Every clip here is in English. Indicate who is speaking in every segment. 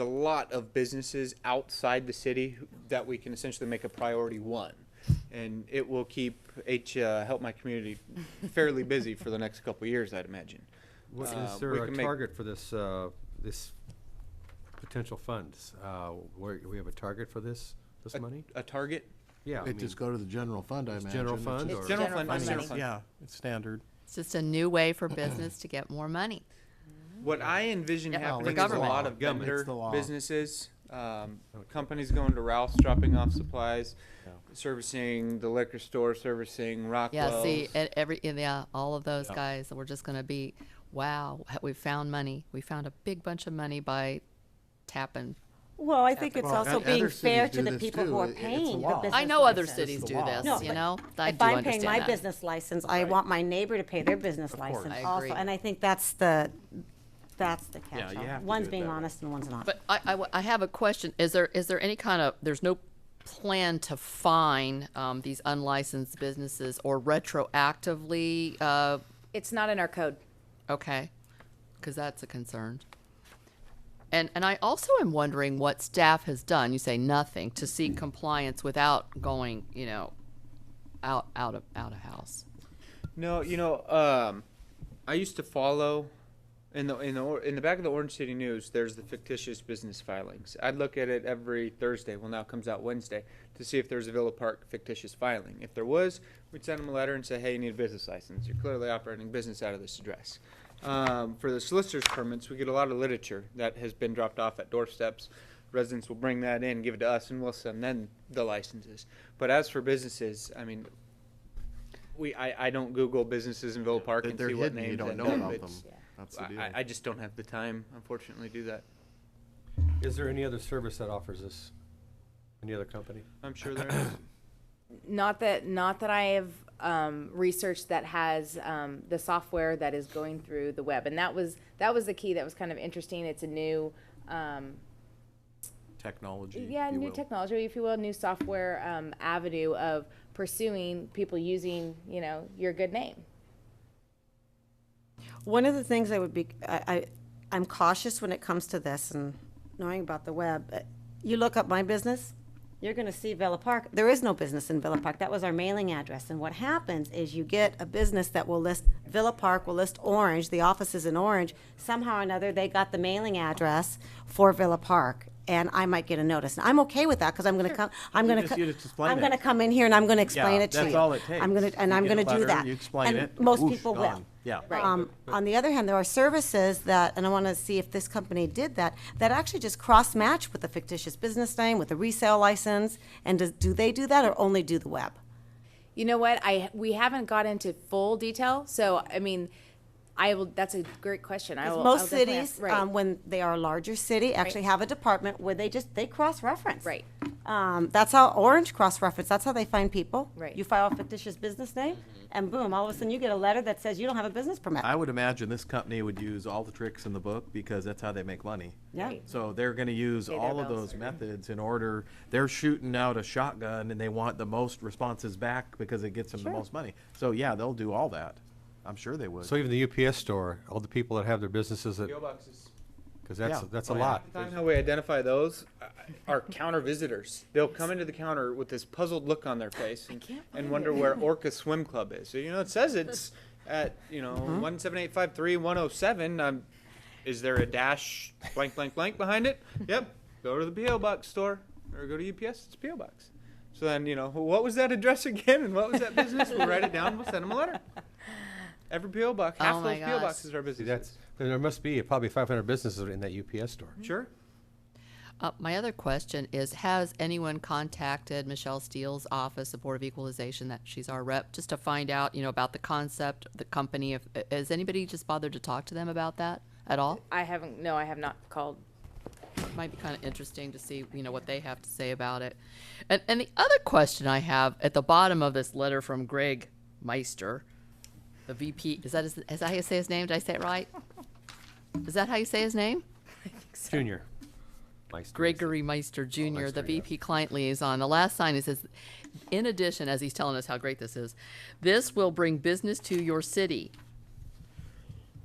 Speaker 1: a lot of businesses outside the city who- that we can essentially make a priority one. And it will keep H, uh, Help My Community fairly busy for the next couple of years, I'd imagine.
Speaker 2: What,
Speaker 1: Uh,
Speaker 2: is
Speaker 1: we
Speaker 2: there a
Speaker 1: can make-
Speaker 2: target for this, uh, this potential funds? Uh, where, we have a target for this, this money?
Speaker 1: A target?
Speaker 2: Yeah, I
Speaker 3: It
Speaker 2: mean,
Speaker 3: just go to the general fund, I
Speaker 2: It's
Speaker 3: imagine.
Speaker 2: general
Speaker 3: It's
Speaker 2: fund
Speaker 3: just-
Speaker 2: or-
Speaker 1: General
Speaker 4: General
Speaker 1: fund,
Speaker 4: fund
Speaker 1: general
Speaker 4: money.
Speaker 1: fund.
Speaker 5: Yeah, it's standard.
Speaker 4: It's just a new way for business to get more money.
Speaker 1: What I envision
Speaker 4: Yeah, for
Speaker 1: happening is a
Speaker 4: government.
Speaker 1: lot of
Speaker 2: Government.
Speaker 1: vendor
Speaker 5: It's the law.
Speaker 1: businesses, um, companies going to Ralph's, dropping off supplies, servicing the liquor store, servicing Rockwell's.
Speaker 4: Yeah, see, e- every, yeah, all of those guys, we're just gonna be, wow, h- we found money. We found a big bunch of money by tapping.
Speaker 6: Well, I think it's
Speaker 3: Well,
Speaker 6: also
Speaker 3: and
Speaker 6: being
Speaker 3: other
Speaker 6: fair
Speaker 3: cities
Speaker 6: to
Speaker 3: do
Speaker 6: the
Speaker 3: this
Speaker 6: people
Speaker 3: too.
Speaker 6: who are
Speaker 3: It- it's a
Speaker 6: paying the
Speaker 3: law.
Speaker 6: business.
Speaker 4: I know other
Speaker 6: license.
Speaker 4: cities
Speaker 3: the
Speaker 4: do
Speaker 3: law. No,
Speaker 4: this, you
Speaker 6: but
Speaker 4: know? I
Speaker 6: If
Speaker 4: do
Speaker 6: I'm paying
Speaker 4: understand
Speaker 6: my
Speaker 4: that.
Speaker 6: business license, I want my neighbor to pay their business license
Speaker 4: I
Speaker 6: also,
Speaker 4: agree.
Speaker 6: and I think that's the, that's the catch.
Speaker 2: you have to do
Speaker 6: One's
Speaker 2: it
Speaker 6: being
Speaker 2: that way.
Speaker 6: honest and one's not.
Speaker 4: But I, I w- I have a question. Is there, is there any kind of, there's no plan to fine, um, these unlicensed businesses or retroactively, uh,
Speaker 7: It's not in our code.
Speaker 4: Okay, because that's a concern. And, and I also am wondering what staff has done, you say nothing, to seek compliance without going, you know, out, out of, out of house.
Speaker 1: No, you know, um, I used to follow in the in the or- in the back of the Orange City News. There's the fictitious business filings. I'd look at it every Thursday. Well, now it comes out Wednesday to see if there's a Villa Park fictitious filing. If there was, we'd send them a letter and say, "Hey, you need a business license. You're clearly operating business out of this address." Um, for the solicitor's permits, we get a lot of literature that has been dropped off at doorsteps. Residents will bring that in, give it to us, and we'll send them the licenses. But as for businesses, I mean, we, I, I don't Google businesses in Villa Park
Speaker 3: They're
Speaker 1: and
Speaker 3: they're
Speaker 1: see what
Speaker 3: hidden, you
Speaker 1: names
Speaker 3: don't
Speaker 1: end
Speaker 3: know
Speaker 1: up.
Speaker 3: about them.
Speaker 1: It's-
Speaker 3: That's the
Speaker 1: I, I
Speaker 3: deal.
Speaker 1: just don't have the time, unfortunately, to do that.
Speaker 2: is there any other service that offers this? Any other company?
Speaker 1: I'm sure there is.
Speaker 7: Not that, not that I have um, researched that has um, the software that is going through the web, and that was that was the key that was kind of interesting. It's a new, um,
Speaker 5: Technology.
Speaker 7: yeah,
Speaker 5: if you
Speaker 7: new
Speaker 5: will.
Speaker 7: technology, if you will, new software um, avenue of pursuing people using, you know, your good name.
Speaker 6: One of the things I would be, I, I, I'm cautious when it comes to this and knowing about the web. uh, You look up my business, you're gonna see Villa Park. There is no business in Villa Park. That was our mailing address. And what happens is you get a business that will list, Villa Park will list Orange, the office is in Orange. Somehow or another, they got the mailing address for Villa Park. And I might get a notice. And I'm okay with that because I'm gonna come, I'm gonna,
Speaker 5: just-
Speaker 6: co-
Speaker 5: you just explain
Speaker 6: I'm
Speaker 5: it.
Speaker 6: gonna come in here and I'm gonna explain
Speaker 5: Yeah,
Speaker 6: it to you.
Speaker 5: That's all it takes.
Speaker 6: I'm gonna, and
Speaker 5: You
Speaker 6: I'm
Speaker 5: get a
Speaker 6: gonna do
Speaker 5: letter,
Speaker 6: that.
Speaker 5: You explain
Speaker 6: And
Speaker 5: it.
Speaker 6: Most
Speaker 5: whoosh,
Speaker 6: people will.
Speaker 5: gone. Yeah.
Speaker 7: Right.
Speaker 6: Um, on the other hand, there are services that, and I want to see if this company did that, that actually just cross-match with a fictitious business name, with a resale license, and does, do they do that or only do the web?
Speaker 7: You know what? I we haven't got into full detail, so I mean, I will. That's a great question. I
Speaker 6: 'Cause
Speaker 7: will. I'll
Speaker 6: most
Speaker 7: definitely
Speaker 6: cities,
Speaker 7: ask- right.
Speaker 6: um, when they are a larger city, actually have a department where they just, they cross-reference.
Speaker 7: Right.
Speaker 6: Um, that's how Orange cross-reference, that's how they find people.
Speaker 7: Right. Mm-hmm.
Speaker 6: You file a fictitious business name, and boom, all of a sudden you get a letter that says you don't have a business permit.
Speaker 5: I would imagine this company would use all the tricks in the book because that's how they make money.
Speaker 6: Yeah.
Speaker 5: So they're gonna use
Speaker 7: Pay their
Speaker 5: all of
Speaker 7: bills.
Speaker 5: those methods in order, they're shooting out a shotgun and they want the most responses back because it gets them the most money. So yeah, they'll do all that. I'm sure they would.
Speaker 2: So even the UPS store, all the people that have their businesses that,
Speaker 1: PO boxes.
Speaker 2: because that's,
Speaker 5: Yeah.
Speaker 2: that's a
Speaker 5: Oh, yeah.
Speaker 2: lot.
Speaker 1: The time how we identify those uh, are counter visitors. They'll come into the counter with this puzzled look on their face and, and wonder where Orca Swim Club is. So, you know, it says it's at, you know,
Speaker 4: Uh-huh.
Speaker 1: one seven eight five three one oh seven. Um, is there a dash blank blank blank behind it? Yep. Go to the PO box store or go to UPS. It's PO box. So then, you know, what was that address again and what was that business? We'll write it down. We'll send them a letter. Every PO box, half
Speaker 4: Oh my
Speaker 1: those PO
Speaker 4: gosh.
Speaker 1: boxes are
Speaker 2: See,
Speaker 1: businesses.
Speaker 2: That's, there must be probably five hundred businesses in that UPS store.
Speaker 1: sure.
Speaker 4: Uh, my other question is, has anyone contacted Michelle Steele's office, the Board of Equalization, that she's our rep, just to find out, you know, about the concept, the company, if, has anybody just bothered to talk to them about that at all?
Speaker 7: I haven't. No, I have not called.
Speaker 4: might be kind of interesting to see, you know, what they have to say about it. And, and the other question I have at the bottom of this letter from Greg Meister, the VP, is that his, is that how you say his name? Did I say it right? Is that how you say his name?
Speaker 2: Junior. Meister.
Speaker 4: Gregory Meister Jr., the VP Client Liaison. The last sign it says, in addition, as he's telling us how great this is, this will bring business to your city.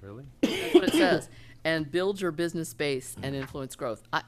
Speaker 2: Really?
Speaker 4: That's what it says. And build your business base and influence growth. I,